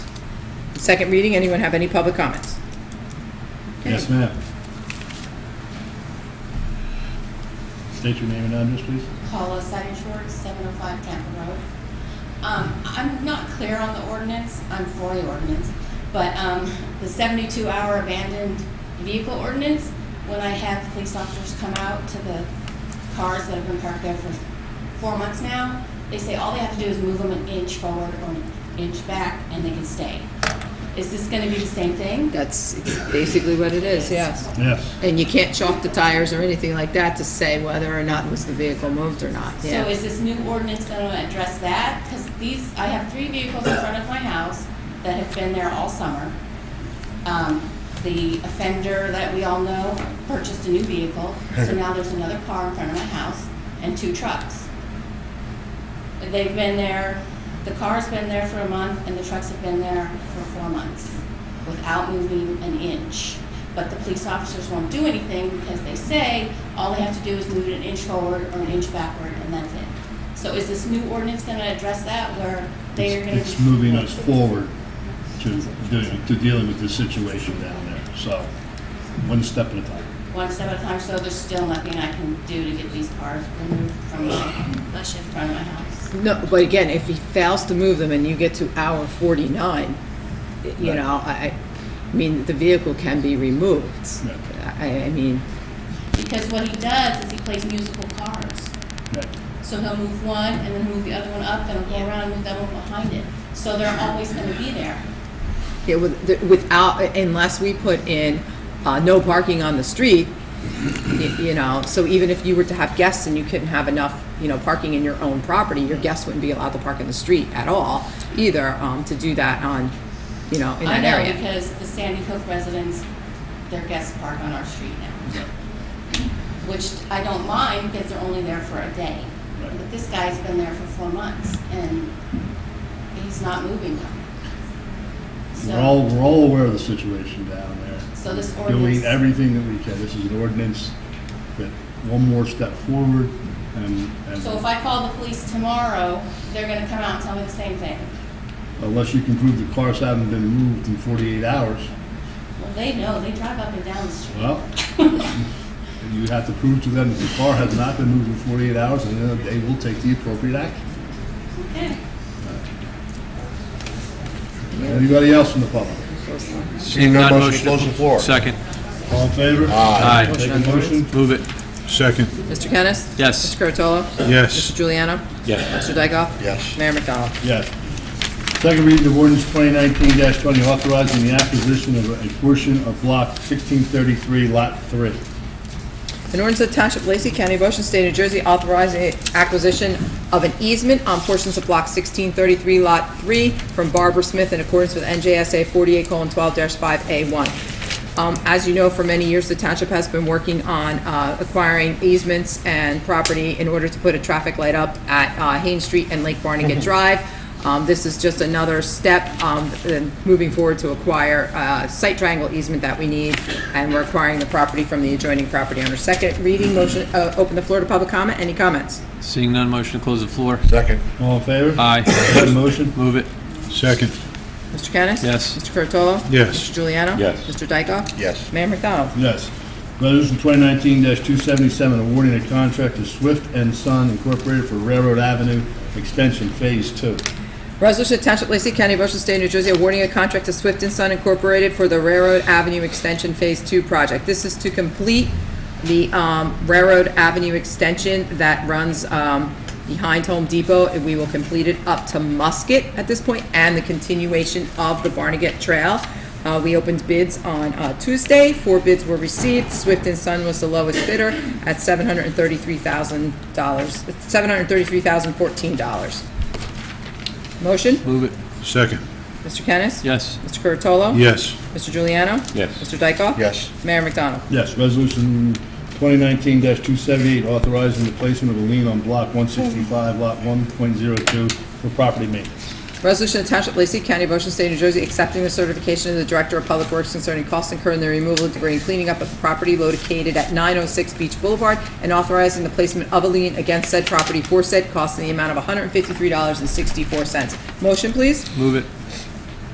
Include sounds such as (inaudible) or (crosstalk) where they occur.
Second reading, anyone have any public comments? Yes, ma'am. State your name and address, please. Paula Siding Schwartz, 705 Tampa Road. Um, I'm not clear on the ordinance, I'm for the ordinance, but um, the 72-hour abandoned vehicle ordinance, when I have police officers come out to the cars that have been parked there for four months now, they say all they have to do is move them an inch forward or an inch back, and they can stay. Is this going to be the same thing? That's basically what it is, yes. Yes. And you can't chalk the tires or anything like that to say whether or not was the vehicle moved or not, So yeah. is this new ordinance going to address that? Because these, I have three vehicles in front of my house that have been there all summer. Um, The offender that we all know purchased a new vehicle, so now there's another car in front of my house and two trucks. They've been there, the car's been there for a month and the trucks have been there for four months without moving an inch. But the police officers won't do anything because they say all they have to do is move it an inch forward or an inch backward and that's it. So is this new ordinance going to address that where they are going to? It's moving us forward to doing, to dealing with the situation down there, so, one step at a time. one step at a time, so there's still nothing I can do to get these cars removed from my, Bless you. front of my house. No, but again, if he fails to move them and you get to hour 49, you Right. know, I, I mean, the vehicle can be removed. Right. I, I mean, Because what he does is he plays musical cars. Right. So he'll move one, and then move the other one up, then he'll go around and move that one behind it. So they're always gonna be there. Yeah, with, the- without, unless we put in, uh, no parking on the street, y- you know, so even if you were to have guests and you couldn't have enough, you know, parking in your own property, your guests wouldn't be allowed to park in the street at all either, um, to do that on, you know, in that I know, area. because the Sandy Hook residents, their guests park on our street now. Which I don't mind, because they're only there for a day. Right. But this guy's been there for four months, and he's not moving them. We're So- all, we're all aware of the situation down there. So this Doing ordinance, everything that we can. This is an ordinance that, one more step forward and, so if and I call the police tomorrow, they're gonna come out and tell me the same thing. unless you can prove the cars haven't been moved in forty-eight hours, Well, they know, they drive up and down the street. Well, (laughs) you have to prove to them that the car has not been moved in 48 hours, and then they will take the appropriate action. Okay. Anybody else in the public? Seeing no motion, to close the floor. Second. All in favor? Aye. Take a motion? Move it. Second. Mr. Kennis? Yes. Mr. Curatolo? Mr. Yes. Juliano? Yes. Mr. Dykoff? Yes. Mayor McDonald? Yes. Second reading of ordinance 2019-20, authorizing the acquisition of a portion of block 1633, lot 3. An ordinance of the Township of Lacey County, of Ocean State, New Jersey, authorizing acquisition of an easement on portions of Block 1633, Lot 3, from Barbara Smith in accordance with NJSA 48:12-5A1. Um, As you know, for many years, the township has been working on uh, acquiring easements and property in order to put a traffic light up at uh, Haines Street and Lake Barnegat Drive. Um, This is just another step um, in moving forward to acquire a site triangle easement that we need, and we're acquiring the property from the adjoining property owner. Second reading, motion, uh, open the floor to public comment. Any comments? Seeing none, motion to close the floor. Second. All in favor? Aye. Take a motion? Move it. Second. Mr. Kennis? Yes. Mr. Curatolo? Yes. Mr. Juliano? Yes. Mr. Dykoff? Yes. Mayor McDonald? Yes. Resolution 2019-277, awarding a contract to Swift and Son Incorporated for Railroad Avenue Extension Phase 2. Resolution to Township of Lacey County, Ocean State, New Jersey, awarding a contract to Swift and Son Incorporated for the Railroad Avenue Extension Phase Two project. This is to complete the um, Railroad Avenue extension that runs um, behind Home Depot. And We will complete it up to Musket at this point, and the continuation of the Barnegat Trail. Uh, We opened bids on uh, Tuesday. Four bids were received. Swift and Son was the lowest bidder at $733,000, $733,014. Motion? Move it. Second. Mr. Kennis? Yes. Mr. Curatolo? Yes. Mr. Juliano? Yes. Mr. Dykoff? Yes. Mayor McDonald? Yes, resolution 2019-278, authorizing the placement of a lien on block 165, lot 1.02 for property maintenance. Resolution of Township of Lacey County, of Ocean State, New Jersey, accepting the certification of the Director of Public Works concerning costs incurred in the removal of debris and cleaning up of the property located at 906 Beach Boulevard and authorizing the placement of a lien against said property for said costs in the amount of $153.64. Motion, please? Move it.